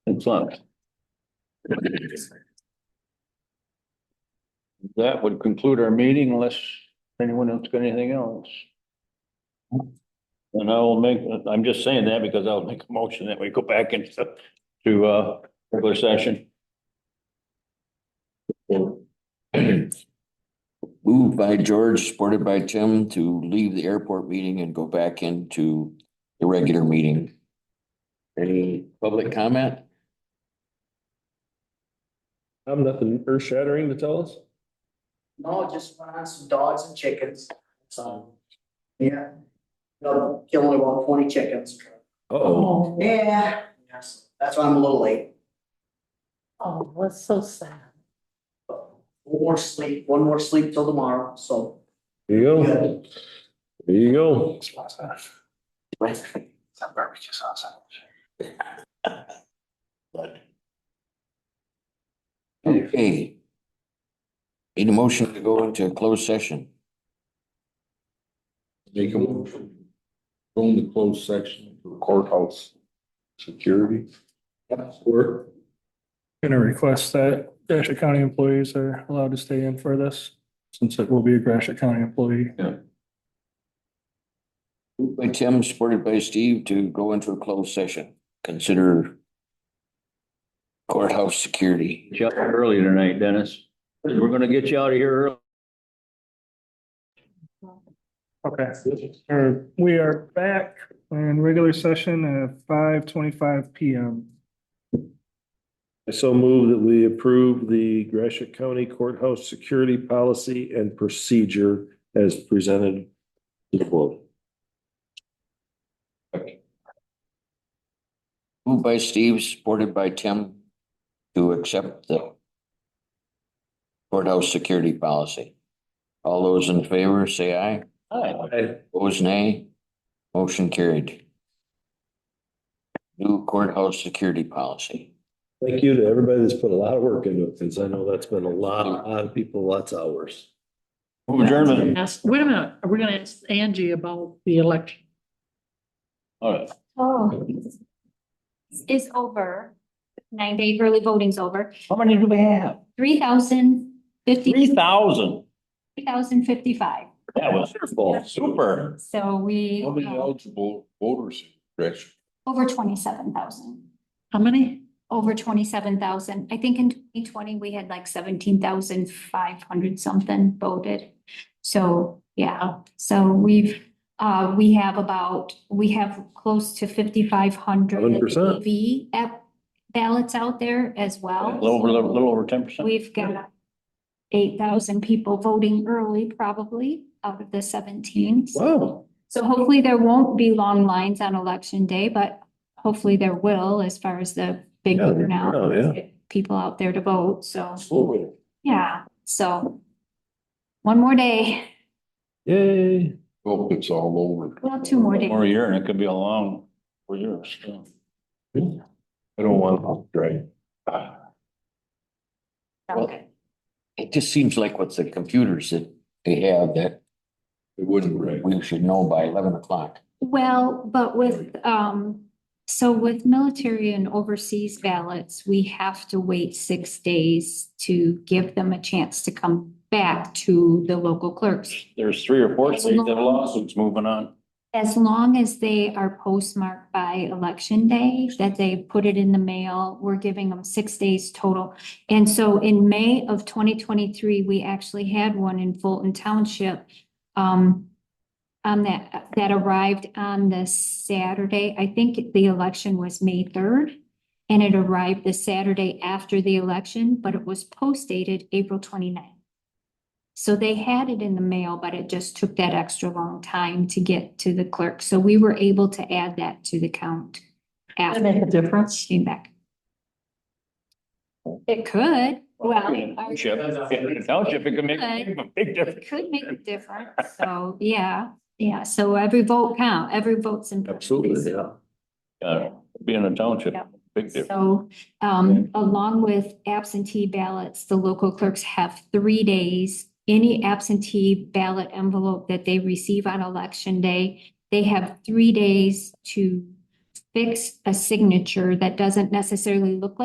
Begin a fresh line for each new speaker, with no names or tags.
It's not. That would conclude our meeting unless anyone else got anything else. And I will make, I'm just saying that because I'll make a motion that we go back into, to, uh, regular session.
Moved by George, supported by Tim, to leave the airport meeting and go back into the regular meeting. Any public comment?
I have nothing earth shattering to tell us.
No, just went on some dogs and chickens, so, yeah. No, killing about twenty chickens.
Uh-oh.
Yeah. Yes, That's why I'm a little late.
Oh, that's so sad.
One more sleep, one more sleep till tomorrow, so.
There you go. There you go.
Some barbecue sauce.
Okay. Need a motion to go into a closed session.
Make a motion. Go into closed section for courthouse security. Or
Gonna request that Gratiot County employees are allowed to stay in for this, since it will be a Gratiot County employee.
Moved by Tim, supported by Steve, to go into a closed session. Consider courthouse security.
Get you out early tonight, Dennis. We're gonna get you out of here early.
Okay. Or we are back in regular session at five twenty-five PM.
I so move that we approve the Gratiot County Courthouse Security Policy and Procedure as presented to the board.
Moved by Steve, supported by Tim, to accept the courthouse security policy. All those in favor, say aye.
Hi.
Aye.
Opposed, nay. Motion carried. New courthouse security policy.
Thank you to everybody that's put a lot of work into it, since I know that's been a lot, a lot of people, lots of hours.
Move German.
Ask, wait a minute, are we gonna ask Angie about the election?
All right.
Oh. Is over, nine day early voting's over,
How many do we have?
three thousand fifty,
Three thousand.
three thousand fifty-five,
That was wonderful. Super.
so we,
how many
uh,
eligible voters, Rich?
over twenty-seven thousand.
How many?
Over twenty-seven thousand, I think in twenty twenty, we had like seventeen thousand five hundred something voted. So, yeah, so we've, uh, we have about, we have close to fifty-five hundred.
100%.
V app ballots out there as
A
well.
little over, a little over ten percent.
We've got eight thousand people voting early probably out of the seventeen.
Wow.
So hopefully there won't be long lines on election day, but hopefully there will as far as the big
Yeah,
turnout.
oh, yeah.
People out there to vote, so,
Absolutely.
yeah, so. One more day,
Yay.
Hope it's all over.
well, two more days.
More year and it could be a long, four years. so.
I don't want to, right?
Okay.
It just seems like with the computers that they have that
It wouldn't, right?
we should know by eleven o'clock.
Well, but with, um, so with military and overseas ballots, we have to wait six days to give them a chance to come back to the local clerks.
There's three or four states that have lawsuits moving on.
As long as they are postmarked by election day, that they put it in the mail, we're giving them six days total. And so in May of twenty twenty-three, we actually had one in Fulton Township. Um, on that, that arrived on the Saturday, I think the election was May third. And it arrived the Saturday after the election, but it was post dated April 29th. So they had it in the mail, but it just took that extra long time to get to the clerk. So we were able to add that to the count.
That
after
make a difference?
she Came back. It could, well,
In
our-
a Township, in a township, it could make a big
it
difference.
could make a difference. So, yeah, yeah. So every vote count, every vote's important.
Absolutely, yeah.
Uh, Being a township,
Yep.
big difference.
So, um, along with absentee ballots, the local clerks have three days. Any absentee ballot envelope that they receive on election day, they have three days to fix a signature that doesn't necessarily look like